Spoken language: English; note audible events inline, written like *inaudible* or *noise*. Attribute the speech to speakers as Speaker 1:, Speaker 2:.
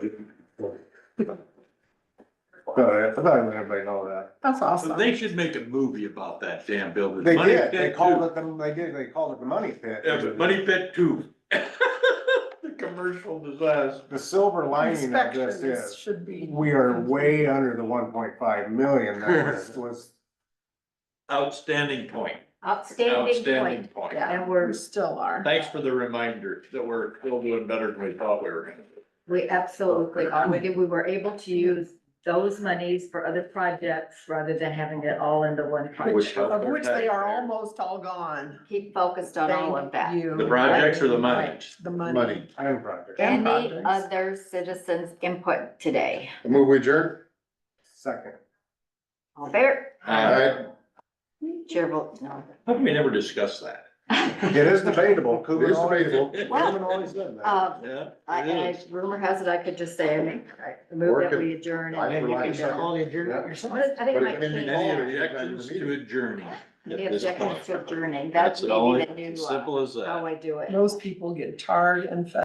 Speaker 1: Uh, Alright, I thought everybody know that.
Speaker 2: That's
Speaker 3: So
Speaker 2: awesome.
Speaker 3: They should make a movie about that damn building.
Speaker 1: They
Speaker 3: Money
Speaker 1: did, they
Speaker 3: Pit
Speaker 1: called
Speaker 3: Two.
Speaker 1: it, the- they did, they called it the money pit.
Speaker 3: Yeah, but Money Pit Two. *laughs* The commercial disaster.
Speaker 1: The silver lining of this
Speaker 2: Inspections
Speaker 1: is,
Speaker 2: should be.
Speaker 1: we are way under the one point five million
Speaker 3: *laughs*
Speaker 1: that was, was
Speaker 3: Outstanding point.
Speaker 4: Outstanding
Speaker 3: Outstanding
Speaker 4: point.
Speaker 3: point.
Speaker 4: Yeah,
Speaker 2: And we're still are.
Speaker 3: Thanks for the reminder that we're still doing better than we thought we were.
Speaker 4: we absolutely are. We did- we were able to use those monies for other projects rather than having it all into one
Speaker 3: Which-
Speaker 4: project.
Speaker 2: Of which they are almost all gone.
Speaker 5: Keep focused on all of that.
Speaker 2: Thank you.
Speaker 3: The projects or the money?
Speaker 2: Right, The money.
Speaker 6: Money.
Speaker 1: iron project,
Speaker 2: And
Speaker 5: Any
Speaker 2: projects.
Speaker 5: other citizens input today?
Speaker 6: I Move we adjourn?
Speaker 1: second.
Speaker 5: All fair?
Speaker 6: Aye.
Speaker 5: Chair votes no.
Speaker 3: Uh, How come we never discussed that?
Speaker 1: It is debatable.
Speaker 6: It is debatable.
Speaker 1: Coleman always said that.
Speaker 5: Uh,
Speaker 3: *laughs* Yeah,
Speaker 5: I,
Speaker 3: it
Speaker 5: and
Speaker 3: is.
Speaker 5: rumor has it, I could just say, I mean, I move that we adjourn and then you can do all the
Speaker 1: Yeah.
Speaker 5: adjournment yourself. I think
Speaker 6: But it
Speaker 5: my
Speaker 6: can be
Speaker 5: team,
Speaker 3: Any objections to adjourning? at
Speaker 5: the
Speaker 3: this point?
Speaker 5: objections to adjourning, that's
Speaker 3: That's
Speaker 5: maybe
Speaker 3: all,
Speaker 5: the new, uh,
Speaker 3: simple as that.
Speaker 5: how I do it.
Speaker 2: Those people get tarred and feathered.